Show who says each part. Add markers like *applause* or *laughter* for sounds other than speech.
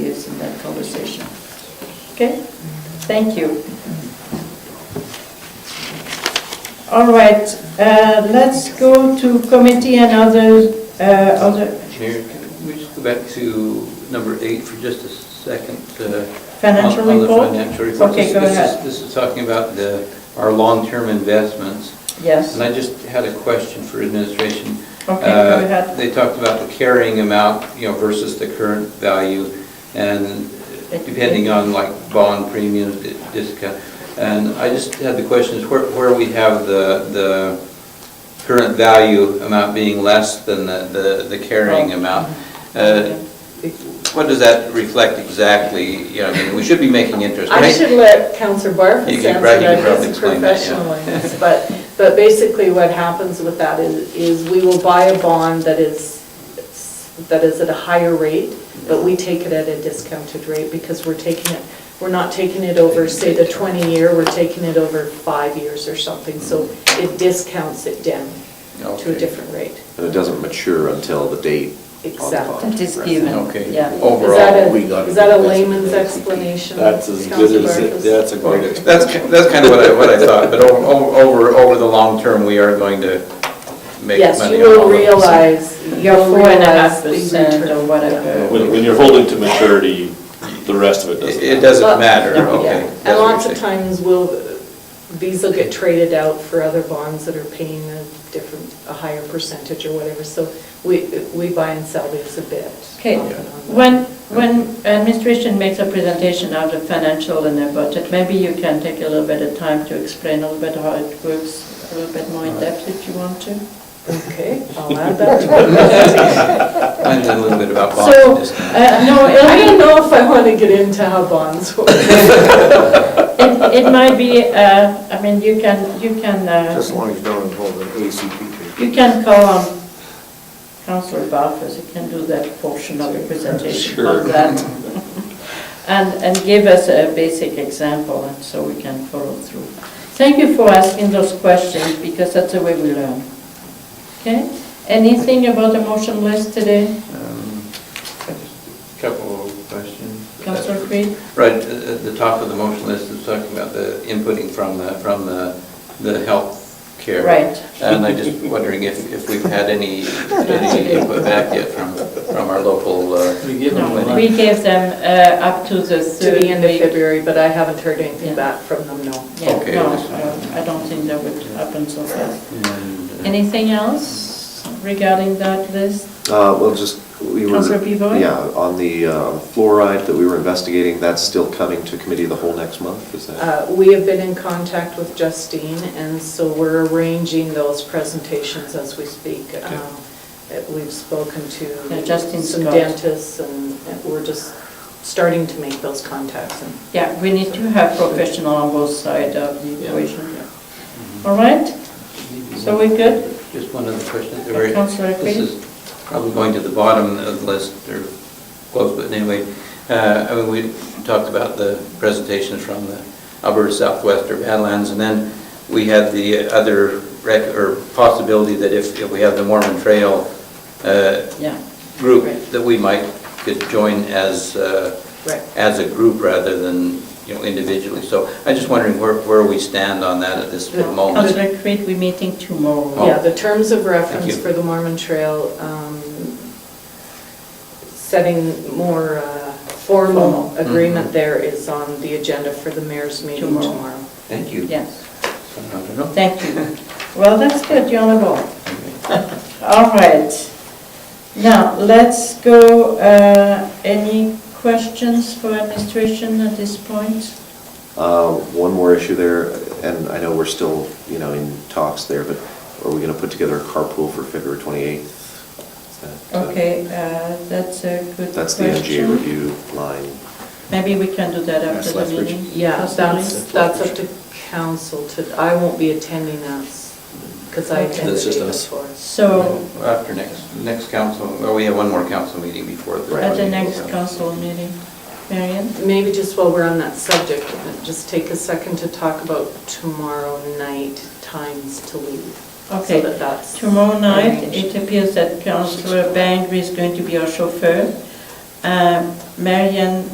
Speaker 1: that conversation. Mm-hmm. Okay? Thank you. All right, uh, let's go to committee and other, uh, other
Speaker 2: Mayor, can we just go back to number eight for just a second? uh,
Speaker 1: financial
Speaker 2: on- on the
Speaker 1: report.
Speaker 2: financial report.
Speaker 1: Okay,
Speaker 2: This-
Speaker 1: go
Speaker 2: this is-
Speaker 1: ahead.
Speaker 2: This is talking about the, our long-term investments,
Speaker 1: Yes,
Speaker 2: and I just had a question for administration.
Speaker 1: okay,
Speaker 2: Uh,
Speaker 1: go ahead.
Speaker 2: They talked about the carrying amount, you know, versus the current value, and depending on like bond premiums, di- discount. And I just had the question is where, where we have the, the current value amount being less than the, the the carrying
Speaker 1: Right.
Speaker 2: amount. Uh, What does that reflect exactly? You know, I mean, we should be making interest,
Speaker 3: I
Speaker 2: right?
Speaker 3: should let Counselor Barfus
Speaker 2: You
Speaker 3: answer
Speaker 2: can- right, you can
Speaker 3: that,
Speaker 2: probably
Speaker 3: he's
Speaker 2: explain that, yeah.
Speaker 3: professional in this, but, but basically what happens with that is, is we will buy a bond that is, that is at a higher rate, but we take it at a discounted rate because we're taking it, we're not taking it over, say, the 20-year, we're taking it over five years or something, so it discounts it down to
Speaker 2: Mm-hmm. Okay.
Speaker 3: a different rate.
Speaker 4: And it doesn't mature until the date on the
Speaker 3: Exactly.
Speaker 4: bond.
Speaker 5: That is
Speaker 4: Right.
Speaker 5: given,
Speaker 2: Okay. Oh.
Speaker 5: yeah.
Speaker 3: Is that
Speaker 4: Overall, we
Speaker 3: a,
Speaker 4: got
Speaker 3: is
Speaker 4: it.
Speaker 3: that a layman's explanation?
Speaker 6: That's as
Speaker 3: Counselor
Speaker 6: good as, it-
Speaker 3: Barfus?
Speaker 6: that's a great
Speaker 2: Okay,
Speaker 6: explanation.
Speaker 2: That's, ki- that's kind of what I, what I thought, but o- o- over, over the long term, we are going to make money.
Speaker 3: Yes, you
Speaker 2: on all of
Speaker 3: will
Speaker 2: this.
Speaker 3: realize. you
Speaker 1: Your
Speaker 3: will
Speaker 1: four and a half
Speaker 3: realize the
Speaker 1: percent
Speaker 3: return.
Speaker 1: or whatever.
Speaker 6: When, when you're holding to maturity, the rest of it doesn't.
Speaker 2: It it
Speaker 3: Well,
Speaker 2: doesn't matter,
Speaker 3: yeah.
Speaker 2: okay. that's
Speaker 3: And
Speaker 2: what you're
Speaker 3: lots of
Speaker 2: saying.
Speaker 3: times will, these will get traded out for other bonds that are paying a different, a higher percentage or whatever. So we, we buy and sell these a bit.
Speaker 1: Okay,
Speaker 3: off and on.
Speaker 1: when, when administration makes a presentation out of financial and a budget, maybe you can take a little bit of time to explain a little bit how it works, a little bit more in depth if you want to.
Speaker 3: Okay, I'll add
Speaker 2: *laughs*
Speaker 3: that.
Speaker 2: I know a little bit about bonds
Speaker 1: So,
Speaker 2: and
Speaker 1: uh,
Speaker 2: discounts.
Speaker 1: no,
Speaker 3: I
Speaker 1: it'll be-
Speaker 3: don't know if I want to get into how bonds work.
Speaker 1: it, it might be, uh, I mean, you can, you can, uh,
Speaker 7: Just as long as you don't involve an ACP.
Speaker 1: you can call um, on Councillor Barfus, he can do that portion of the presentation
Speaker 6: Sure.
Speaker 1: on that. *laughs* And, and give us a basic example, and so we can follow through. Thank you for asking those questions, because that's the way we learn. Okay? Anything about the motion list today,
Speaker 2: Um, just a Couple of questions.
Speaker 1: Councillor Creed?
Speaker 2: Right, at at the top of the motion list is talking about the inputting from the, from the, the health care.
Speaker 1: Right.
Speaker 2: And I'm just wondering if, if we've had
Speaker 3: *laughs*
Speaker 2: any, any input back yet from, from our local. uh,
Speaker 1: No, we gave them uh, up to the
Speaker 3: To
Speaker 1: third
Speaker 3: the
Speaker 1: week.
Speaker 3: end of February, but I haven't heard
Speaker 1: Yeah.
Speaker 3: anything back from them, no.
Speaker 1: Yeah,
Speaker 2: Okay,
Speaker 1: no,
Speaker 2: that's fine.
Speaker 1: no, I don't think that would happen so fast.
Speaker 2: And, uh,
Speaker 1: Anything else regarding that list?
Speaker 4: Uh, well, just, we were.
Speaker 1: Councilor Pivoy?
Speaker 4: Yeah, on the uh, fluoride that we were investigating, that's still coming to committee the whole next month, is that?
Speaker 3: Uh, We have been in contact with Justine, and so we're arranging those presentations as we speak.
Speaker 4: Okay.
Speaker 3: Um, uh, We've spoken
Speaker 1: Yeah,
Speaker 3: to
Speaker 1: Justine
Speaker 3: some
Speaker 1: Scott.
Speaker 3: dentists, and and we're just starting to make those contacts. and-
Speaker 1: Yeah, we need to have professional on both sides of the equation. All right, so we're good?
Speaker 2: Just one other question. at the
Speaker 1: Yeah,
Speaker 2: very-
Speaker 1: Councillor
Speaker 2: This
Speaker 1: Creed?
Speaker 2: is probably going to the bottom of the list, or close, but anyway, uh, I mean, we talked about the presentations from the Alberta Southwest or Badlands, and then we had the other rec, or possibility that if if we have the Mormon Trail uh,
Speaker 1: Yeah,
Speaker 2: group,
Speaker 1: Right.
Speaker 2: that we might could join as, uh,
Speaker 3: Right.
Speaker 2: as a group rather than, you know, individually. So I'm just wondering where, where we stand on that at this
Speaker 3: Yeah.
Speaker 2: moment.
Speaker 1: Councillor Creed, we're meeting tomorrow.
Speaker 3: Yeah, the terms of
Speaker 2: Oh. Thank
Speaker 3: reference
Speaker 2: you.
Speaker 3: for the Mormon Trail, um, setting more uh,
Speaker 1: Formal.
Speaker 3: formal
Speaker 2: Mm-hmm.
Speaker 3: agreement there is on the agenda for the mayor's meeting
Speaker 1: Tomorrow.
Speaker 3: tomorrow.
Speaker 2: Thank you.
Speaker 1: Yes,
Speaker 2: I don't know.
Speaker 1: thank you. Well, that's good, you're on the ball. All right. Now, let's go, uh, any questions for administration at this point?
Speaker 4: Uh, One more issue there, and I know we're still, you know, in talks there, but are we going to put together a carpool for February 28th? Is that, uh,
Speaker 1: Okay, uh, that's a good question.
Speaker 4: That's the MGA review line.
Speaker 1: Maybe we can do that after
Speaker 4: Yes,
Speaker 1: the
Speaker 4: let's reach-
Speaker 1: meeting?
Speaker 3: Yeah,
Speaker 1: possibly?
Speaker 3: that's, that's up to council to, I won't be attending that, because I
Speaker 1: Okay.
Speaker 3: attended
Speaker 6: That's just
Speaker 3: it
Speaker 6: us.
Speaker 3: before.
Speaker 1: So,
Speaker 2: After next, next council, well, we have one more council meeting before the.
Speaker 1: at the next council meeting, Marion?
Speaker 3: Maybe just while we're on that subject, just take a second to talk about tomorrow night times to leave. So
Speaker 1: Okay,
Speaker 3: that that's.
Speaker 1: tomorrow night, it
Speaker 3: arranged.
Speaker 1: Uh, appears that Councillor Bangry is going to be our chauffeur. Um, Marion